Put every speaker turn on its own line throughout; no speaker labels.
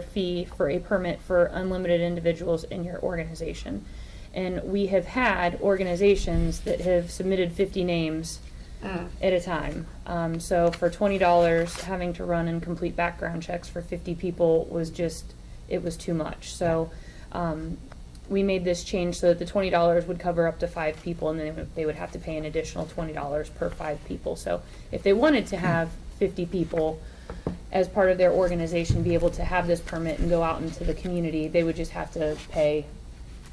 fee for a permit for unlimited individuals in your organization. And we have had organizations that have submitted fifty names
Mm.
at a time. Um, so for twenty dollars, having to run and complete background checks for fifty people was just, it was too much. So, um, we made this change so that the twenty dollars would cover up to five people and then they would- they would have to pay an additional twenty dollars per five people. So if they wanted to have fifty people as part of their organization be able to have this permit and go out into the community, they would just have to pay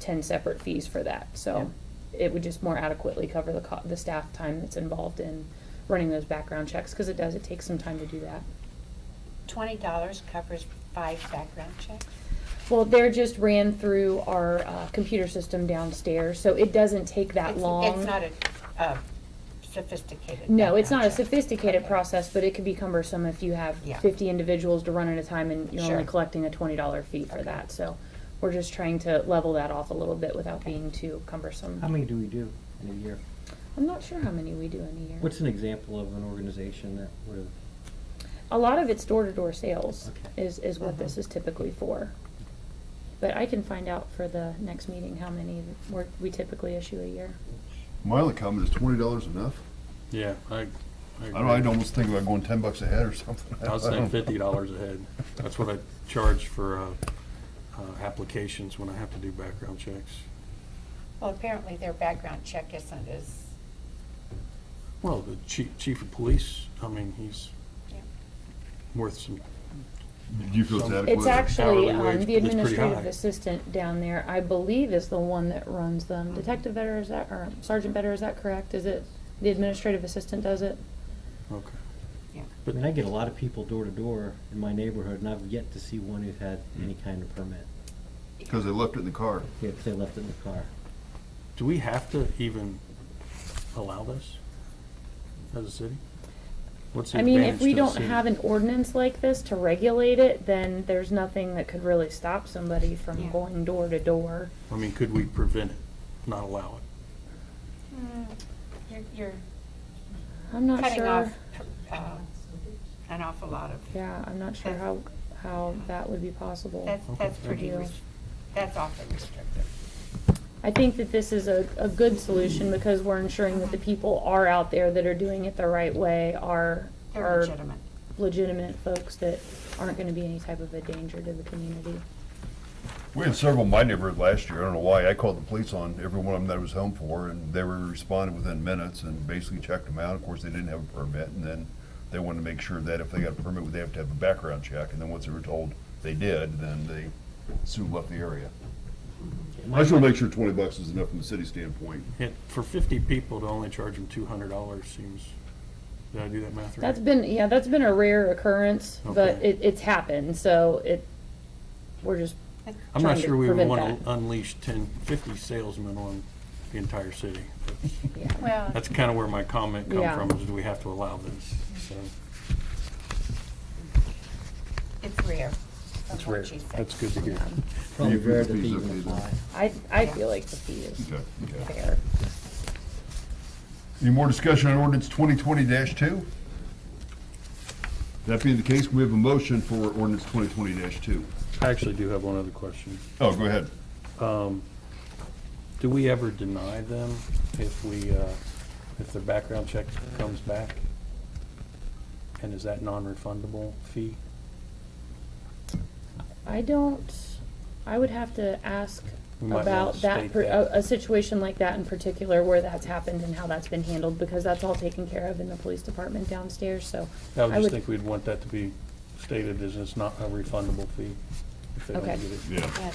ten separate fees for that. So it would just more adequately cover the co- the staff time that's involved in running those background checks, because it does, it takes some time to do that.
Twenty dollars covers five background checks?
Well, they're just ran through our uh, computer system downstairs, so it doesn't take that
It's-
long.
It's not a, a sophisticated.
No, it's not a
background check.
sophisticated
Okay.
process, but it can be cumbersome if you have
Yeah.
fifty individuals to run at a time and you're only
Sure.
collecting a twenty dollar fee for
Okay.
that, so we're just trying to level that off a little bit without being too cumbersome.
How many do we do in a year?
I'm not sure how many we do in a year.
What's an example of an organization that would have,
A lot of it's door-to-door sales
Okay.
is, is what this
Mhm.
is typically for. But I can find out for the next meeting how many we're, we typically issue a year.
My only comment is twenty dollars enough?
Yeah, I, I
I
agree.
don't, I'd almost think about going ten bucks a head or something.
I was
I
saying
don't know.
fifty dollars a head. That's what I charge for, uh, uh, applications when I have to do background checks.
Well, apparently their background check isn't as,
Well, the chief, chief of police, I mean, he's
Yeah.
worth some,
Do you feel it's adequate?
It's actually,
Hourly wage,
um, the
it's pretty
administrative
high.
assistant down there, I believe is the one that runs them.
Hmm.
Detective Vetter, is that, or Sergeant Vetter, is that correct? Is it, the administrative assistant does it?
okay.
I mean, I get a lot of people door to door in my neighborhood, and I've yet to see one who had any kind of permit,
Cause they left it in the car.
if they left it in the car.
Do we have to even allow this as a city? What's the
I mean, if
advantage
we
to the
don't
city?
have an ordinance like this to regulate it, then there's nothing that could really stop somebody from
Yeah.
going door to door.
I mean, could we prevent it, not allow it?
Mm, you're, you're
I'm not
cutting
sure,
off uh, an awful lot of,
yeah, I'm not sure
That-
how, how that would be possible.
that's,
Okay.
that's pretty,
Yeah.
res- that's awfully restrictive.
I think that this is a, a good solution because we're ensuring that the people are out there that are doing it the right way, are,
They're
are
legitimate.
legitimate folks that aren't gonna be any type of a danger to the community.
We had several in my neighborhood last year, I don't know why, I called the police on every one of them that I was home for, and they were responded within minutes and basically checked them out, of course, they didn't have a permit, and then they wanted to make sure that if they got a permit, they have to have a background check, and then once they were told they did, then they soon left the area. I just wanna make sure twenty bucks is enough from the city standpoint.
It, for fifty people to only charge them two hundred dollars seems, did I do that math right?
That's been, yeah, that's been a rare occurrence, but
Okay.
it, it's happened, so it, we're just,
I'm not
trying to
sure we would
prevent
want
that.
to unleash 10, 50 salesmen on the entire city.
yeah.
Well,
That's kind of where my comment
Yeah.
come from, is do we have to allow this? So,
it's rare, from
That's rare.
what she said.
That's good to hear.
Um,
Probably
Yeah,
rare that they
please,
even
okay, then.
apply.
I, I feel like the fee is
Okay, okay.
fair.
Any more discussion on ordinance twenty twenty two? That being the case, we have a motion for ordinance twenty twenty two.
I actually do have one other question.
Oh, go ahead.
Do we ever deny them if we, uh, if their background check comes back? And is that non-refundable fee?
I don't, I would have to ask
We might wanna
about that,
state
per- a,
that.
a situation like that in particular where that's happened and how that's been handled, because that's all taken care of in the police department downstairs, so.
I would
I would-
just think we'd want that to be stated as it's not a refundable fee. if they don't
Okay.
get it.
Yeah.
But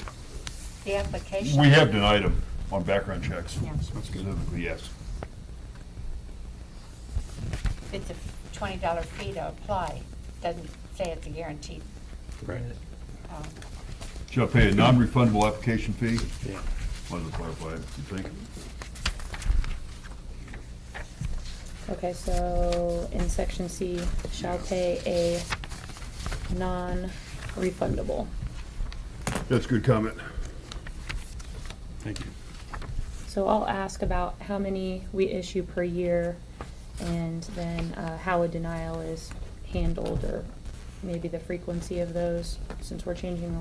The application.
We have denied them on background checks.
Yeah.
Specifically, yes.
It's a twenty dollar fee to apply, doesn't say it's a guaranteed,
Right,
um,
Shall pay a non-refundable application fee?
yeah.
Wanted to clarify, you think?
Okay, so in section C, shall
Yeah.
pay a non-refundable.
That's a good comment.
Thank you.
So I'll ask about how many we issue per year and then uh, how a denial is handled or maybe the frequency of those, since we're changing the